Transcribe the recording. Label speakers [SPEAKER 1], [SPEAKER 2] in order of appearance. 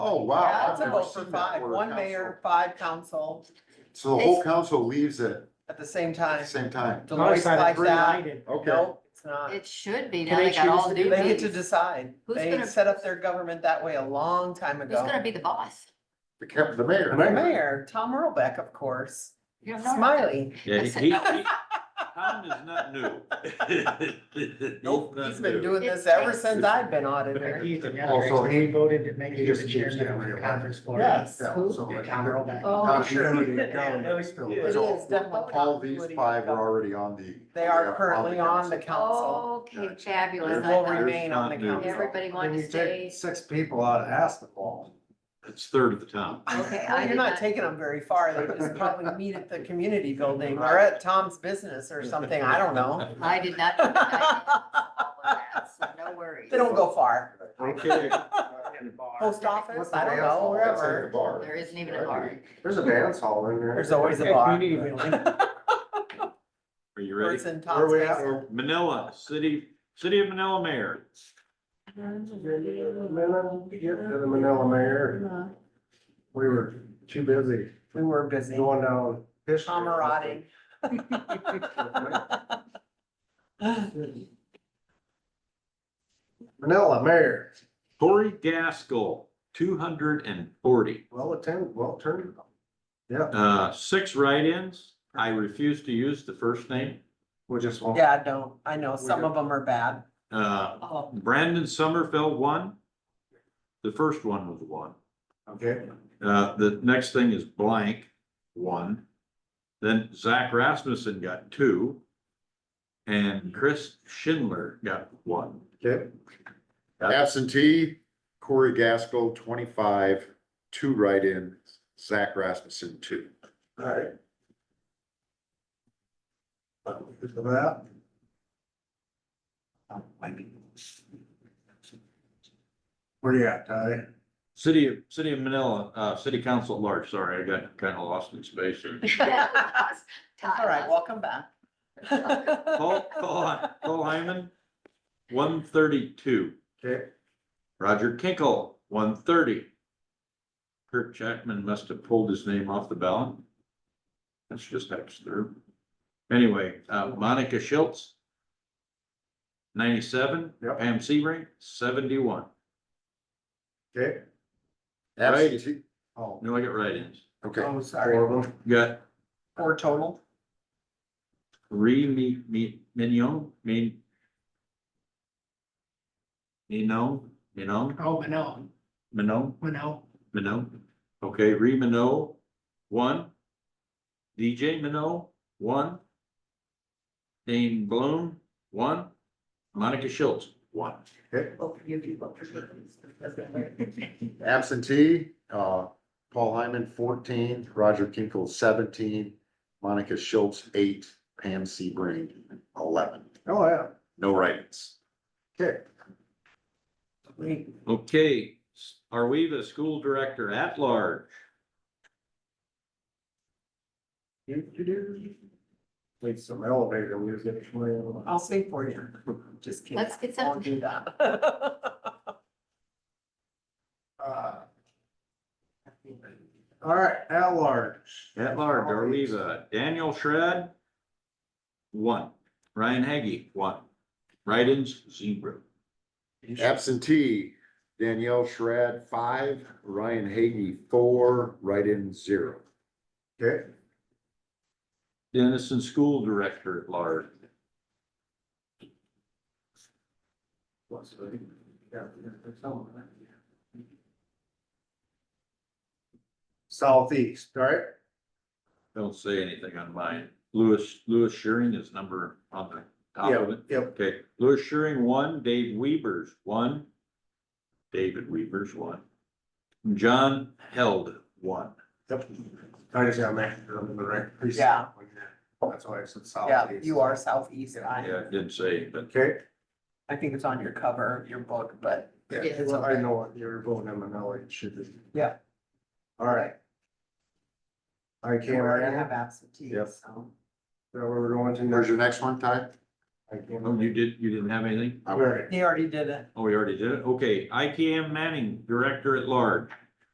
[SPEAKER 1] Oh, wow.
[SPEAKER 2] Yeah,
[SPEAKER 1] I've
[SPEAKER 2] it's a
[SPEAKER 1] never
[SPEAKER 2] vote for
[SPEAKER 1] seen that
[SPEAKER 2] five,
[SPEAKER 1] where a
[SPEAKER 2] one
[SPEAKER 1] council-
[SPEAKER 2] mayor, five council
[SPEAKER 1] So the whole council leaves at
[SPEAKER 2] at the same
[SPEAKER 1] the
[SPEAKER 2] time.
[SPEAKER 1] same time.
[SPEAKER 2] Deloitte's like that.
[SPEAKER 1] Okay,
[SPEAKER 2] Nope, it's not.
[SPEAKER 3] It should be,
[SPEAKER 4] Can
[SPEAKER 3] now
[SPEAKER 4] they
[SPEAKER 3] they got all
[SPEAKER 4] choose to
[SPEAKER 3] duties.
[SPEAKER 4] do
[SPEAKER 2] They get to
[SPEAKER 3] Who's
[SPEAKER 2] decide.
[SPEAKER 3] Who's
[SPEAKER 2] They
[SPEAKER 3] gonna-
[SPEAKER 2] set up their government that way a long time ago.
[SPEAKER 3] gonna be the boss?
[SPEAKER 1] the cap, the mayor.
[SPEAKER 2] The Mayor, Tom Earlbeck, of course,
[SPEAKER 3] You don't know.
[SPEAKER 2] Smiley.
[SPEAKER 5] Yeah, he,
[SPEAKER 3] Listen,
[SPEAKER 5] he,
[SPEAKER 3] no.
[SPEAKER 5] he- Tom is not new.
[SPEAKER 2] Nope,
[SPEAKER 5] not
[SPEAKER 2] he's been
[SPEAKER 5] new.
[SPEAKER 2] doing this ever since I've been auditor.
[SPEAKER 1] Also,
[SPEAKER 4] he voted to make
[SPEAKER 1] he
[SPEAKER 4] you
[SPEAKER 1] just
[SPEAKER 4] the
[SPEAKER 1] keeps
[SPEAKER 4] chairman
[SPEAKER 1] getting
[SPEAKER 4] of the
[SPEAKER 1] reelected.
[SPEAKER 4] conference board.
[SPEAKER 2] Yes.
[SPEAKER 1] Yeah,
[SPEAKER 3] Who?
[SPEAKER 1] so like-
[SPEAKER 4] Tom Earlbeck.
[SPEAKER 3] Oh,
[SPEAKER 1] Tom,
[SPEAKER 3] sure.
[SPEAKER 1] you know, the government still-
[SPEAKER 5] Yeah.
[SPEAKER 2] It
[SPEAKER 1] so
[SPEAKER 2] is definitely
[SPEAKER 1] All
[SPEAKER 2] Tom
[SPEAKER 1] these
[SPEAKER 2] Woody.
[SPEAKER 1] five are already on the.
[SPEAKER 2] They
[SPEAKER 1] yeah,
[SPEAKER 2] are currently on the council.
[SPEAKER 3] Okay,
[SPEAKER 2] They
[SPEAKER 3] fabulous. I
[SPEAKER 2] will
[SPEAKER 3] thought
[SPEAKER 2] remain on the council.
[SPEAKER 3] Everybody wanted to stay.
[SPEAKER 4] six people out of basketball.
[SPEAKER 5] It's third of the town.
[SPEAKER 3] Okay,
[SPEAKER 2] Well,
[SPEAKER 3] I
[SPEAKER 2] You're
[SPEAKER 3] did
[SPEAKER 2] not
[SPEAKER 3] not.
[SPEAKER 2] taking them very far. They just probably meet at the community building or at Tom's business or something. I don't know.
[SPEAKER 3] I did not. do that. I did not follow that, So no worries.
[SPEAKER 2] They don't go far.
[SPEAKER 5] Okay,
[SPEAKER 2] Post office, I don't know,
[SPEAKER 1] Outside the
[SPEAKER 2] wherever.
[SPEAKER 1] bar.
[SPEAKER 3] There isn't even a bar.
[SPEAKER 4] There's a dance hall in there.
[SPEAKER 2] There's always a bar.
[SPEAKER 5] are you
[SPEAKER 2] Or
[SPEAKER 5] ready?
[SPEAKER 2] it's in
[SPEAKER 4] Where
[SPEAKER 2] Tom's
[SPEAKER 4] we at?
[SPEAKER 2] basement.
[SPEAKER 5] Manila, city, city of Manila mayor.
[SPEAKER 4] Manila, Get to the Manila mayor. We were too busy
[SPEAKER 2] We were busy.
[SPEAKER 4] going down. history.
[SPEAKER 2] Camaraderie.
[SPEAKER 4] Manila mayor,
[SPEAKER 5] Corey Gaskell, two hundred and forty.
[SPEAKER 4] well attended, well turned. Yeah,
[SPEAKER 5] Uh, six write-ins. I refuse to use the first name.
[SPEAKER 4] we just won't.
[SPEAKER 2] Yeah, I don't, I know, some of them are bad.
[SPEAKER 5] Uh,
[SPEAKER 3] Oh,
[SPEAKER 5] Brandon Sommerfeld won. The first one was one.
[SPEAKER 4] Okay.
[SPEAKER 5] Uh, the next thing is blank, one. Then Zach Rasmussen got two. And Chris Schindler got one.
[SPEAKER 4] Okay.
[SPEAKER 1] Absentee Corey Gaskell, twenty-five, two write-in, Zach Rasmussen, two.
[SPEAKER 4] All right. Good for that. Where you at, Ty?
[SPEAKER 5] City of, City of Manila, uh, City Council at large, sorry, I got kind of lost in space. there.
[SPEAKER 2] All right, welcome back.
[SPEAKER 5] Paul, Paul, Paul Hyman, one thirty-two.
[SPEAKER 4] Okay,
[SPEAKER 5] Roger Kinkle, one thirty. Kirk Jackman must have pulled his name off the ballot. That's just absurd. Anyway, uh, Monica Schultz. Ninety-seven.
[SPEAKER 4] Yep.
[SPEAKER 5] Pam Sebring, seventy-one.
[SPEAKER 4] okay.
[SPEAKER 5] Right.
[SPEAKER 1] Absentee,
[SPEAKER 4] Oh,
[SPEAKER 5] No, I got write-ins.
[SPEAKER 1] okay.
[SPEAKER 2] Oh, sorry.
[SPEAKER 4] four of them.
[SPEAKER 5] Got
[SPEAKER 2] Four total.
[SPEAKER 5] Ree Mi, Mi, Mignon, Min. Minon, Minon,
[SPEAKER 4] Oh, no,
[SPEAKER 5] Minon,
[SPEAKER 4] no.
[SPEAKER 5] Minon. Okay, Ree Minot, one. DJ Minot, one. Dane Bloom, one. Monica Schultz, one.
[SPEAKER 1] Absentee, uh, Paul Hyman, fourteen, Roger Kinkle, seventeen, Monica Schultz, eight, Pam Sebring, eleven.
[SPEAKER 4] Oh, yeah,
[SPEAKER 1] No write-ins.
[SPEAKER 4] okay.
[SPEAKER 2] We-
[SPEAKER 5] Okay, are we the school director at large?
[SPEAKER 4] Need some elevator music.
[SPEAKER 2] I'll sing for you. Just kidding.
[SPEAKER 3] Let's get
[SPEAKER 2] I'll
[SPEAKER 3] some.
[SPEAKER 2] do that.
[SPEAKER 4] Uh, All right, at large.
[SPEAKER 5] At large, are we the Daniel Shred? One. Ryan Haggy, one. Write-ins, zero.
[SPEAKER 1] Absentee, Danielle Schrad, five, Ryan Hagey, four, write-in, zero.
[SPEAKER 4] Okay,
[SPEAKER 5] Dennison School Director at large.
[SPEAKER 4] southeast, all right?
[SPEAKER 5] Don't say anything on mine. Lewis, Lewis Shearing is number on the top of it.
[SPEAKER 4] Yep,
[SPEAKER 5] Okay, Lewis Shearing, one. Dave Weavers, one. David Weavers, one. John Held, one.
[SPEAKER 4] yep. I just gotta make sure I'm in the right precinct.
[SPEAKER 2] Yeah.
[SPEAKER 4] That's why I said
[SPEAKER 2] Yeah,
[SPEAKER 4] southeast.
[SPEAKER 2] you are southeast.
[SPEAKER 5] Yeah,
[SPEAKER 2] I,
[SPEAKER 5] I didn't say, but
[SPEAKER 4] Okay,
[SPEAKER 2] I think it's on your cover of your book, but
[SPEAKER 4] yeah,
[SPEAKER 3] Yeah.
[SPEAKER 4] well, I know what you're voting on, and now it should be.
[SPEAKER 2] Yeah.
[SPEAKER 4] All right. I
[SPEAKER 2] we
[SPEAKER 4] can't,
[SPEAKER 2] already
[SPEAKER 4] I,
[SPEAKER 2] have absentees, so.
[SPEAKER 4] where we're going to.
[SPEAKER 1] Where's
[SPEAKER 4] next?
[SPEAKER 1] your next one, Ty?
[SPEAKER 4] I can't-
[SPEAKER 5] oh, you did, you didn't have anything?
[SPEAKER 4] All right,
[SPEAKER 2] He already did it.
[SPEAKER 5] Oh, we already did it. Okay, IKM Manning, Director at Large.